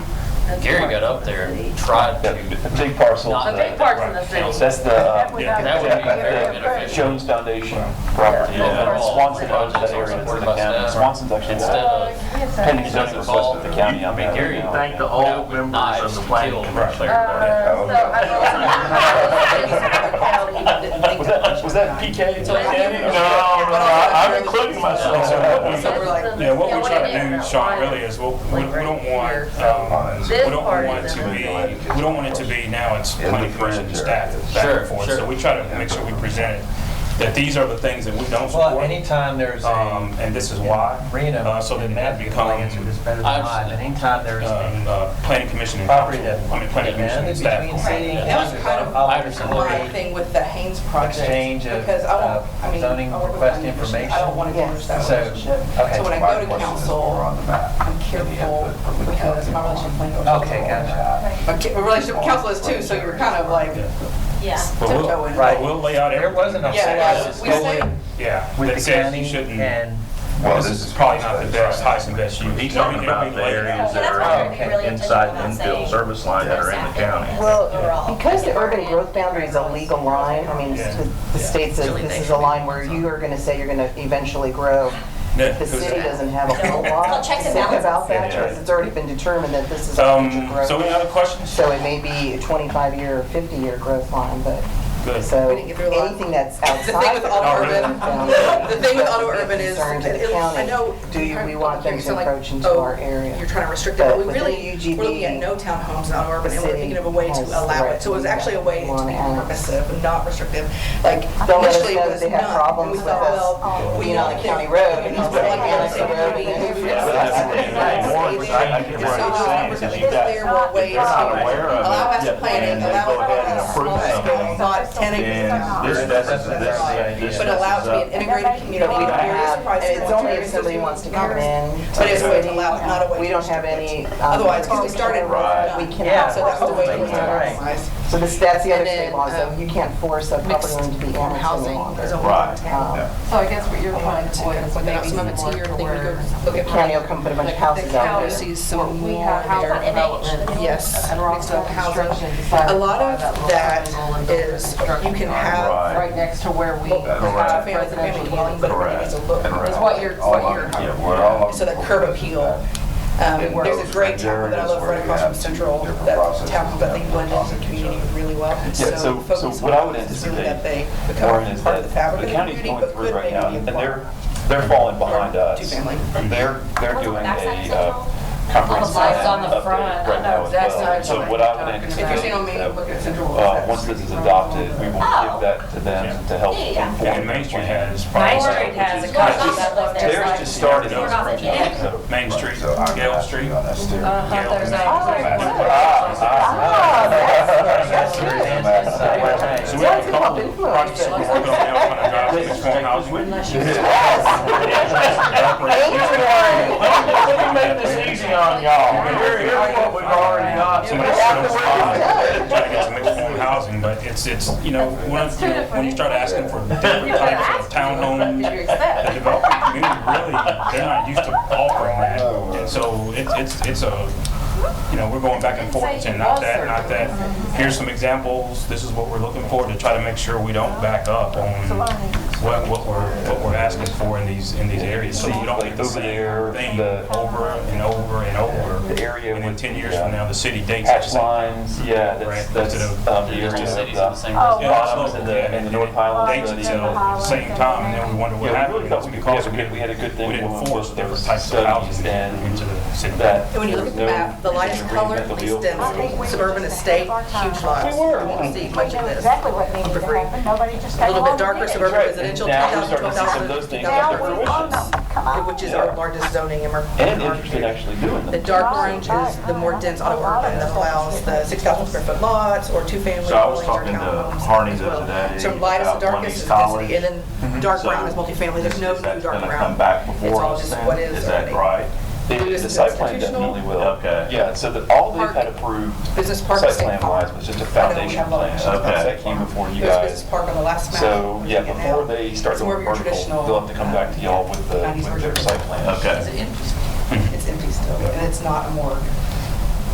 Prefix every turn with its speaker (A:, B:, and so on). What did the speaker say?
A: Gary got up there and tried
B: The
A: to,
B: the big parcel.
A: Not
B: is
A: a
B: the-
A: big
C: parts in the
A: city.
B: That's the uh,
C: Yeah.
A: that would be very beneficial.
B: Jones Foundation property.
A: Yeah.
B: And Swanson owns that area that's in the county. Swanson's actually
D: Uh,
A: Instead
B: the
A: of,
B: pending zoning
A: instead of
B: request
A: all,
B: of the
A: I
B: county. I'm
A: mean,
B: at
A: Gary,
B: right now.
E: Thank the
A: you know,
E: old
A: with
E: members
A: knives
E: of the
A: killed
E: planning commission.
D: Uh,
A: everybody.
B: Was that, was that PK?
A: So-
B: Danny?
E: No, no, I'm including myself. in what we-
F: So we're like,
G: Yeah, what we
C: Yeah,
G: try
C: what
G: to
C: it
G: do,
C: is,
G: Sean,
C: right.
G: really is, we'll- we we
C: Like,
G: don't
C: right
G: want, um, we
C: This
G: don't
C: part
G: want it
C: is
G: to
C: in
G: be,
F: there.
G: we don't want it to be now it's
F: Yeah,
G: planning
F: the
G: commission and
F: fringe
G: staff
F: areas.
G: back
A: Sure,
G: and forth.
A: sure.
G: So we try to make sure we present it, that these are the things that we don't
H: Well,
G: support,
H: anytime there's
G: um,
H: a
G: and this is why.
H: Reno,
G: Uh, So then that becomes,
H: answer this better than
A: I've-
H: I, but anytime there's
G: um,
H: a
G: uh, planning commission and
H: property
G: council,
H: that
G: I mean, planning commission and
H: demanded
G: staff.
H: between city and
F: That was
H: county,
F: kind of
H: I'll-
A: I understand.
H: I'll-
F: my thing with the Haynes project.
H: Exchange of,
F: because I won't-
H: uh,
F: I mean,
H: zoning
F: I work with
H: request
F: planning commission.
H: information.
F: I don't want to damage that
H: So,
F: relationship.
H: okay.
F: So when I go to council, I'm careful because my relationship with planning.
H: Okay, gotcha.
F: Okay, my relationship with council is too, so you're kind of like
G: But we'll-
F: tiptoeing.
H: Right.
G: We'll lay out
H: There
G: everything.
H: wasn't a
F: Yeah,
H: whole
F: yeah,
H: lot
F: we say,
G: Yeah, that
H: with the
G: says you
H: county
G: shouldn't,
H: and,
G: this is probably not the best, highest and best use.
E: He's talking about the areas that are in- inside the infield service line that are in the county.
I: Well, because the urban growth boundary is a legal line, I mean,
G: Yeah.
I: the state says this is a line where you are going to say you're going to eventually grow.
G: Yeah,
I: The
G: who's
I: city
G: that?
I: doesn't have a whole lot
C: Well,
I: to
C: checks and
I: say about
C: balances.
I: that,
E: Yeah.
I: because it's already been determined that this is a future
G: Um, so any
I: growth.
G: other questions?
I: So it may be a 25-year or 50-year growth line, but,
G: Good.
I: so
F: We didn't get through a lot.
I: anything that's
F: the thing
I: outside.
F: with
I: the
F: auto
I: growth
F: urban,
I: boundary
F: the thing with auto
I: is a
F: urban is,
I: concern to the
F: it'll- I
I: county.
F: know.
I: Do you- we want them
F: you're
I: to
F: like,
I: encroach into
F: oh,
I: our area?
F: You're trying to restrict it,
I: But
F: but we
I: within
F: really,
I: UGB,
F: we're looking at no townhomes in auto urban,
I: the
F: and we're
I: city
F: thinking of a way to
I: has
F: allow it. So it was
I: threatened
F: actually a way to
I: one
F: be
I: ounce.
F: permissive and not restrictive. Like
I: Don't let us
F: initially
I: know
F: it
I: that
F: was
I: they have
F: none,
I: problems
F: and we
I: with
F: thought,
I: us
F: well, we
I: being on
F: want
I: a
F: to-
I: county road and
F: we
I: it's
F: want to
I: like,
F: be on a
I: yeah,
F: city road, and
I: it's-
F: it's-
B: But that's the thing,
I: Right.
B: Warren was saying, I can
F: So
B: what he's saying,
F: it's
B: because you got-
F: there were ways
B: If you're
F: to
B: not aware of it,
F: allow us to
B: yeah,
F: plan
B: and
F: it,
B: they
F: allow
B: go ahead and
F: us to
B: approve
F: plan
B: something,
F: it, not ten
E: And
F: acres.
E: this,
F: of
E: this,
F: ground.
E: this, this.
F: But allow it to be an integrated community with
I: We don't
F: various
I: have-
F: price
I: and it's
F: points,
I: only if
F: various
I: somebody
F: social
I: wants to come
F: groups.
I: in
F: But it's a way to
I: to-
F: allow it, not a way to.
I: we don't have
F: restrict it.
I: any. um,
F: Otherwise, when we started, we're
E: Right.
F: done.
I: We
H: Yeah.
I: cannot.
F: So that's the way we
H: Right.
F: compromise.
I: So this, that's the other
F: And then,
I: state law, so
F: um,
I: you can't force a property
F: Mixed
I: owner to be annexed any
F: housing
I: longer.
F: is a
E: Right.
F: town.
I: Um,
D: So I guess what you're trying to avoid is maybe
F: Some
D: some
F: of it's
D: more
F: here,
D: to
F: I think we
D: where
F: go look at.
I: County will come put a bunch of houses
D: the
I: out
D: county
I: there.
D: sees some
F: we
D: more
F: have
D: their
F: housing
D: development.
F: Yes,
D: And we're
F: mixed
D: also
F: up housing.
D: construction.
F: A lot of that is, you can have
E: Right.
D: Right next to where we
A: Uh-huh.
E: Correct.
D: have
F: family to family
D: residential
F: dwelling,
D: dwellings.
F: but it really needs a look.
E: Correct.
D: Is what you're,
F: All
D: what
F: of
D: you're.
F: it.
E: Yeah, we're all.
F: So that curb appeal. Um,
D: It
F: There's
D: works.
F: a great town that I love
E: Where
F: right
E: you
F: across from
E: have
F: Central,
E: different
F: that
E: processes
F: town that they
E: that
F: blend into the
E: talk to each
F: community
E: other.
F: really well.
B: Yeah, so, so
F: focus
B: what I would
F: on it is really
B: anticipate,
F: That they
B: Warren,
F: become
B: is
F: part of
B: that
F: the fabric
B: the
F: of the
B: county's
F: community,
B: going
F: but
B: through
F: could
B: right now,
F: maybe
B: and
F: be
B: they're, they're falling behind us.
F: Two-family.
B: They're, they're doing a uh, comprehensive
D: lights on the
B: plan update
D: front, I
B: right
D: know
B: now as
D: exactly
B: well.
D: what
B: So
D: you're
B: what I would
D: talking
F: If you're seeing on me,
B: anticipate,
F: look at
B: that,
F: Central.
B: uh, once this is adopted, we will
C: Oh.
B: give that to them to help inform
G: Yeah, and
B: the
G: Main Street
B: plan.
G: has.
C: Main
G: problems,
C: Street
G: which
C: has
G: is-
C: a couple that look there.
B: Theirs just started.
G: Yeah.
B: So- Oh,
G: Main Street,
E: So I-
G: Gale Street.
E: Yeah, that's different.
G: Gale
D: there's
G: and
D: a-
B: Ah, ah,
I: Ah, that's-
B: that's
I: good.
B: great.
I: That's
H: good.
G: So we have a
I: That's
G: couple
I: good.
G: projects we're working on now, trying to drive to mixed form housing.
E: Let me make this easy on y'all. Here- Here's what we've already got.
G: Somebody
E: After
G: sells
E: we're
G: five, trying to get some mixed form housing, but it's, it's, you know, when, when you start asking for different types of townhomes, the development community really, they're not used to offering that. And so it's, it's, it's a, you know, we're going back and forth and saying, not that, not that. Here's some examples, this is what we're looking for to try to make sure we don't back up on what, what we're, what we're asking for in these, in these areas. So you don't get the
B: Over
G: same
B: there,
G: thing
B: the-
G: over and over and over.
B: The area
G: And in
B: with-
G: ten years from now, the city dates. it the
B: Hatch
G: same.
B: lines, yeah, that's,
G: Right.
B: that's um, the
A: the
B: area
A: two cities in the
B: of the
A: same
G: Yeah,
A: residence.
B: bottoms and the, and the North Highlands.
G: Dates
B: of the-
G: until the same time, and then we wonder what
B: Yeah, we
G: happened.
B: really thought we could,
G: Because
B: yeah, we had- we had a good thing.
G: We didn't
B: with
G: force
B: those
G: different types of houses
B: studies And
G: into the city.
B: that.
F: And when you look at the
B: there was no
F: map, the lightest
B: reason to
F: color
B: reinvent the wheel.
F: extends suburban estate, huge lots.
B: We were.
F: You won't see
J: We
F: much of
J: knew
F: this.
J: exactly what needed
F: for
J: to
F: free.
J: happen, nobody just
F: A
J: came
F: little bit
J: along and
F: darker
J: did it.
F: suburban
B: Right,
F: residential,
B: and now
F: 10,000,
B: we're starting to see some of those things come to
F: 12,000,
B: fruition.
J: Come on.
F: which is
B: Yeah.
F: our largest zoning and our.
B: And interest in actually doing
F: The
B: them.
F: dark orange is the more dense auto urban that allows the 6,000 square foot lots or two-family
E: So I was
F: dwellings
E: talking
F: or
E: to
F: townhomes.
E: Harney
F: as
E: the other
F: well.
E: day
F: So lightest to
E: about
F: darkest
E: Wendy's
F: is density, and
E: College. Mhm.
F: then dark
E: So
F: brown is multifamily, there's no
E: is
F: new
E: that
F: dark
E: gonna
F: brown.
E: Come back
F: It's
E: before
F: all
E: us
F: just
E: then?
F: what is
E: Is that
F: already.
E: right?
B: The
F: Do this
B: the site
F: as
B: plan
F: institutional?
B: definitely will.
E: Okay.
B: Yeah, so that all they've
F: Park.
B: had approved,
F: Business park,
B: site
F: state
B: plan
F: park.
B: wise, was just a
F: I know we
B: foundation
F: have a lot
B: plan.
F: of
E: Okay.
B: That came before you
F: There's a business
B: guys.
F: park on the last map.
B: So,
F: we're
B: yeah,
F: looking at
B: before
F: now.
B: they start going
F: It's more of your
B: vertical,
F: traditional,
B: they'll have to come back to y'all with the,
F: 90s
B: with their
F: version.
B: site plan.
E: Okay.
F: It's empty still, and it's not a morgue.